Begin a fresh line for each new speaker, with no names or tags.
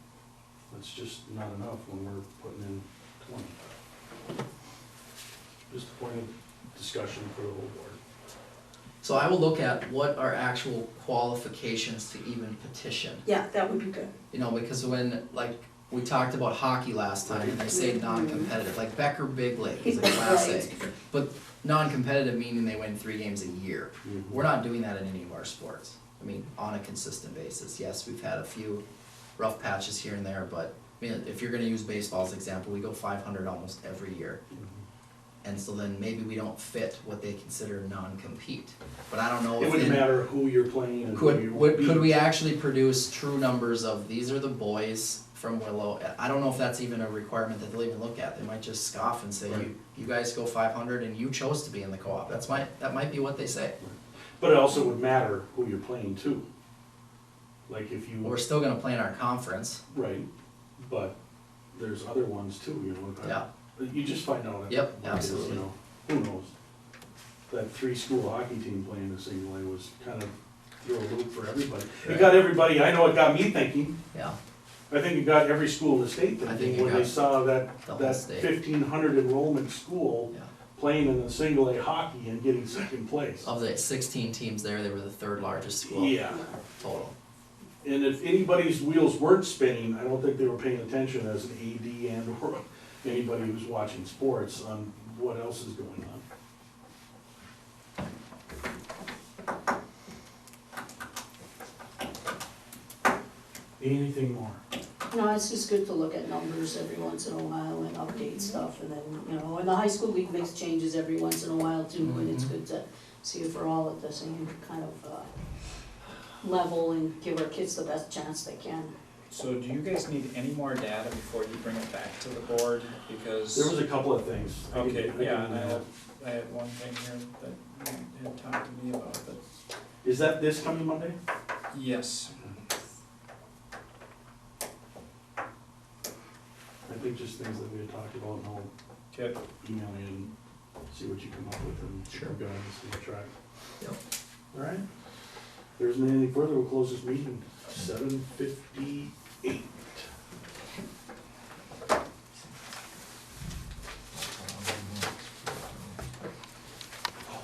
it's just not enough when we're putting in twenty. Just a point of discussion for the whole board.
So I will look at what are actual qualifications to even petition.
Yeah, that would be good.
You know, because when, like, we talked about hockey last time, and they say non-competitive, like Becker Big Lake is a class A. But non-competitive meaning they win three games a year. We're not doing that in any of our sports. I mean, on a consistent basis. Yes, we've had a few rough patches here and there, but, I mean, if you're gonna use baseball as an example, we go five hundred almost every year. And so then maybe we don't fit what they consider non-compete. But I don't know if
It wouldn't
in-
matter who you're playing and who
Could,
you
would,
beat.
could we actually produce true numbers of these are the boys from Willow? I don't know if that's even a requirement that they'll even look at, they might just scoff and say, you, you guys go five hundred and you chose to be in the co-op, that's my, that might be what they say.
Mm-hmm. But it also would matter who you're playing to. Like if
We're
you,
still gonna play in our conference,
right, but there's other ones too, you know. but-
yeah,
But you just find out.
Yep,
what it is, you
absolutely.
know. Who knows? That three-school hockey team playing in single A was kind of threw a loop for everybody. It got everybody, I know it got me thinking,
yeah,
I think it got every school in the state
I think
thinking
it
when they
got
saw that,
the whole
that
state.
fifteen hundred enrollment school
yeah.
playing in the single A hockey and getting second place.
Of the sixteen teams there, they were the third largest school
Yeah,
total,
and if anybody's wheels weren't spinning, I don't think they were paying attention as an AD and or anybody who's watching sports on what else is going on. Anything more?
No, it's just good to look at numbers every once in a while and
Mm-hmm.
update stuff and then, you know, and the high school league makes changes every once in a while too, and it's
Mhm.
good to see if we're all at the same kind of, uh, level and give our kids the best chance they can.
So do you guys need any more data before you bring it back to the board?
There was
Because
a couple of things. I can- I
Okay,
can-
yeah, and I have, I have one thing here that you had talked to me about, but
Is that this coming Monday?
yes,
I think just things that we had talked about and I'll
okay,
email you and see what you come up with and
Sure.
go and see what track.
Yep.
All right. If there isn't anything further, we'll close this meeting, seven fifty